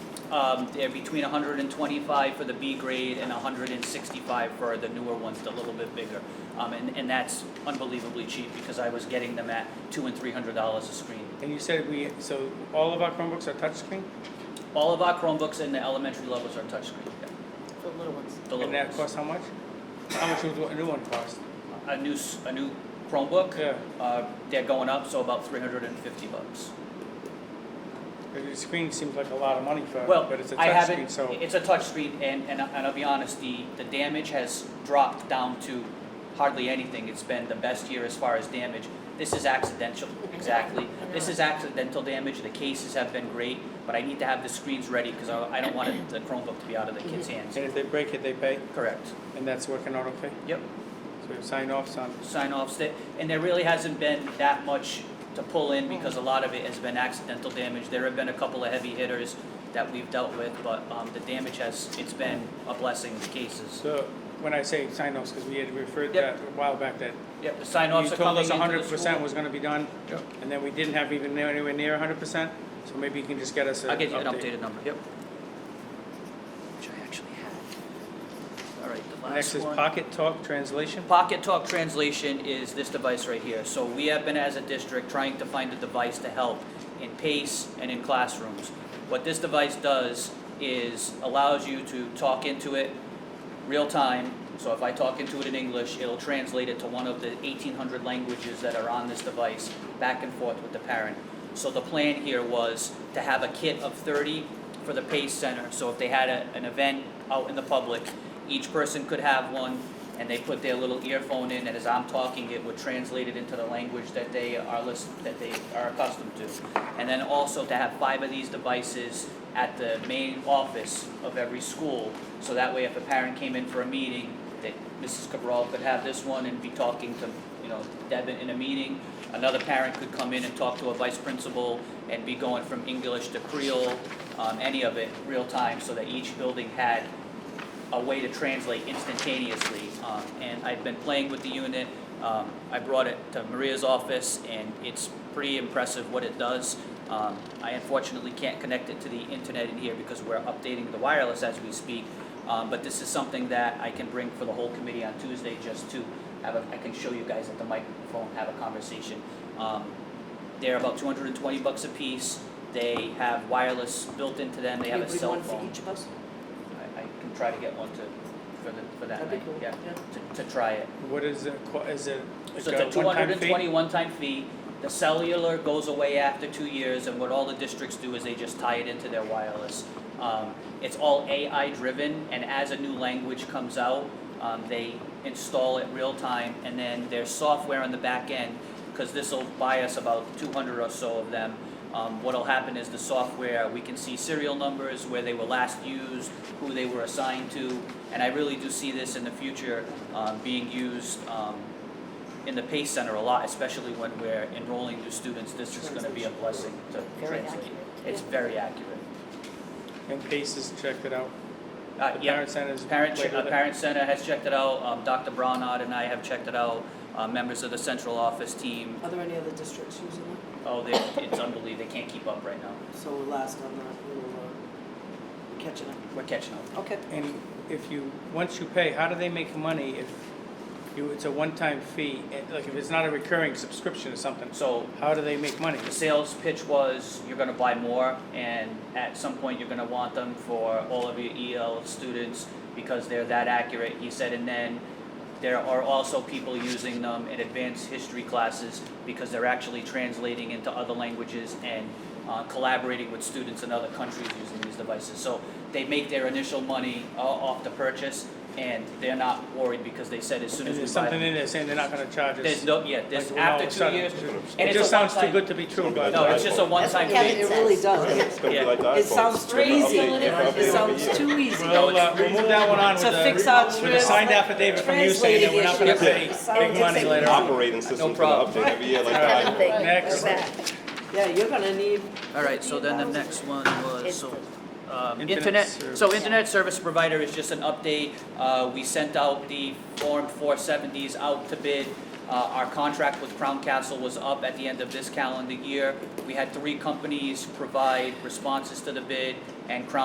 Um, They're between 125 for the B grade and 165 for the newer ones, the little bit bigger. Um, And, and that's unbelievably cheap because I was getting them at two and $300 a screen. And you said we, so all of our Chromebooks are touchscreen? All of our Chromebooks in the elementary levels are touchscreen, for little ones. the little And that ones. costs how much? How much would a new one cost? A new, s- a new Chromebook? Yeah, Uh, they're going up, so about 350 bucks. the screen seems like a lot of money for, Well, but it's a I touchscreen, haven't, so. it's a touchscreen, and, and I- and I'll be honest, the, the damage has dropped down to hardly anything. It's been the best year as far as damage. This is accidental, exactly. This is accidental damage, the cases have been great, but I need to have the screens ready, because I, I don't want it- the Chromebook to be out of the kids' hands. And if they break it, they pay, Correct, and that's working out okay? yep. So we have signed offs on, sign offs that, and there really hasn't been that much to pull in because a lot of it has been accidental damage. There have been a couple of heavy hitters that we've dealt with, but, um, the damage has, it's been a blessing cases. so when I say sign offs, because we had referred that Yep. a while back that Yep, the sign you offs are told coming us into the hundred percent school. was gonna be done, Yep. and then we didn't have even near- anywhere near hundred percent, so maybe you can just get us a I'll get you an update. updated number, yep. Which I actually have. All right, the last one. Next is Pocket Talk translation. Pocket Talk translation is this device right here. So we have been as a district trying to find a device to help in PACE and in classrooms. What this device does is allows you to talk into it real time. So if I talk into it in English, it'll translate it to one of the 1,800 languages that are on this device, back and forth with the parent. So the plan here was to have a kit of 30 for the PACE Center. So if they had a, an event out in the public, each person could have one, and they put their little earphone in, and as I'm talking, it would translate it into the language that they are list, that they are accustomed to. And then also to have five of these devices at the main office of every school, so that way if a parent came in for a meeting, that Mrs. Cabral could have this one and be talking to, you know, Deb in a meeting. Another parent could come in and talk to a vice principal and be going from English to Creole, um, any of it, real time, so that each building had a way to translate instantaneously. Um, and I've been playing with the unit. Um, I brought it to Maria's office, and it's pretty impressive what it does. Um, I unfortunately can't connect it to the internet in here because we're updating the wireless as we speak. Um, but this is something that I can bring for the whole committee on Tuesday just to have a, I can show you guys at the microphone, have a conversation. Um, they're about 220 bucks a piece. They have wireless built into them. They have a cell phone. One for each of us? I, I can try to get one to, for the, for that That'd be night, cool. yeah, to, to try it. What is it, qu- is it like So it's a a two one-time hundred fee? and twenty one-time fee, the cellular goes away after two years, and what all the districts do is they just tie it into their wireless. Um, it's all AI-driven, and as a new language comes out, um, they install it real-time, and then there's software on the back end, because this'll buy us about two hundred or so of them. Um, what'll happen is the software, we can see serial numbers, where they were last used, who they were assigned to, and I really do see this in the future, um, being used, um, in the Pace Center a lot, especially when we're enrolling new students, this is gonna be a blessing to Very translate. accurate. It's very accurate. And Paces checked it out. Uh, The yeah, parent centers. Parent, played uh, with it. Parent Center has checked it out, um, Dr. Brownard and I have checked it out, uh, members of the central office team. Are there any other districts using it? Oh, they, it's unbelievable, they can't keep up right now. So we're last on that, we're catching up. We're catching up. Okay. And if you, once you pay, how do they make money if you, it's a one-time fee? And, Like if it's not a recurring subscription or something, So how do they make money? the sales pitch was, you're gonna buy more, and at some point, you're gonna want them for all of your EL students, because they're that accurate, he said, and then there are also people using them in advanced history classes, because they're actually translating into other languages and uh, collaborating with students in other countries using these devices. So they make their initial money uh, off the purchase, and they're not worried, because they said as soon Is as we there buy something them. in there saying they're not gonna charge us? There's no, yeah, there's, Like, well, all of after a two sudden, years, it and It it's a just sounds too one-time- good to be true, but. uh, no, it's just a That's what one-time Kevin fee. Kevin, it really It's does. gonna Yeah. be like the It iPhone. sounds It's too gonna easy. update every It other sounds year. too easy. We'll, uh, we'll move that one on with To fix the, our with a trips. signed affidavit from you saying that we're not gonna pay Translating issues. big money later on. Operating system's gonna problem. update every year like the iPhone. Everything. Next. We're back. Yeah, you're gonna need, All right, so then the next one was, so, um, Internet internet, so service. internet service provider is just an update. Uh, we sent out the Form four seventies out to bid. Uh, our contract with Crown Castle was up at the end of this calendar year. We had three companies provide responses to the bid, and Crown